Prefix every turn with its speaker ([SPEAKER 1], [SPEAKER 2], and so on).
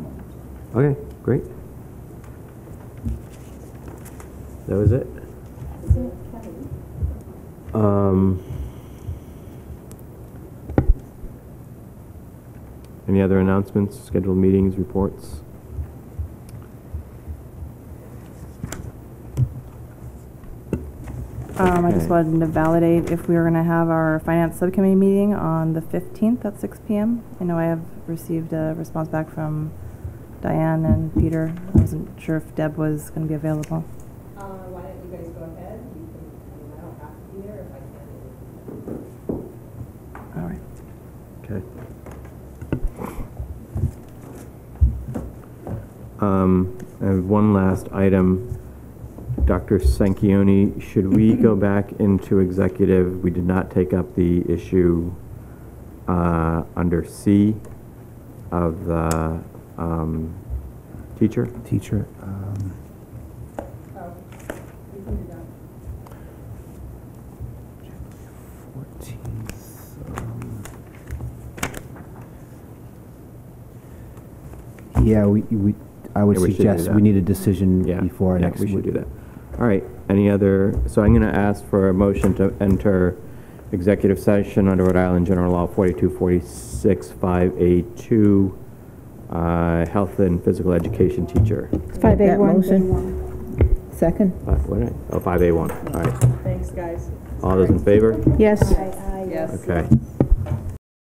[SPEAKER 1] Okay, great. That was it?
[SPEAKER 2] Is it Kevin?
[SPEAKER 1] Um, any other announcements, scheduled meetings, reports?
[SPEAKER 3] Um, I
[SPEAKER 1] Okay.
[SPEAKER 3] just wanted to validate if we were going to have our finance subcommittee meeting on the 15th at 6 PM. I know I have received a response back from Diane and Peter. I wasn't sure if Deb was going to be available.
[SPEAKER 2] Uh, why don't you guys go ahead? You can, I mean, I don't have to be there if I can.
[SPEAKER 3] All right.
[SPEAKER 1] Okay. Um, I have one last item. Dr. Sanquioni, should we go back into executive? We did not take up the issue uh, under C of the um, teacher.
[SPEAKER 4] Teacher, um,
[SPEAKER 2] Oh, you can do that.
[SPEAKER 4] 14th. um, um, Yeah, we, we, I would
[SPEAKER 1] Yeah, we should do
[SPEAKER 4] suggest
[SPEAKER 1] that.
[SPEAKER 4] we need a decision
[SPEAKER 1] Yeah,
[SPEAKER 4] before our
[SPEAKER 1] yeah,
[SPEAKER 4] next.
[SPEAKER 1] we should
[SPEAKER 4] week.
[SPEAKER 1] do that. All right, any other, so I'm going to ask for a motion to enter executive session under Rhode Island General Law 42465A2, uh, health and physical education teacher.
[SPEAKER 5] Make
[SPEAKER 6] Five eight
[SPEAKER 5] that
[SPEAKER 6] one.
[SPEAKER 5] motion. Second?
[SPEAKER 1] Uh, What did I, oh, 5A1, all right.
[SPEAKER 2] Thanks, guys.
[SPEAKER 1] All those in favor?
[SPEAKER 6] Yes.
[SPEAKER 2] Yes.
[SPEAKER 1] Okay.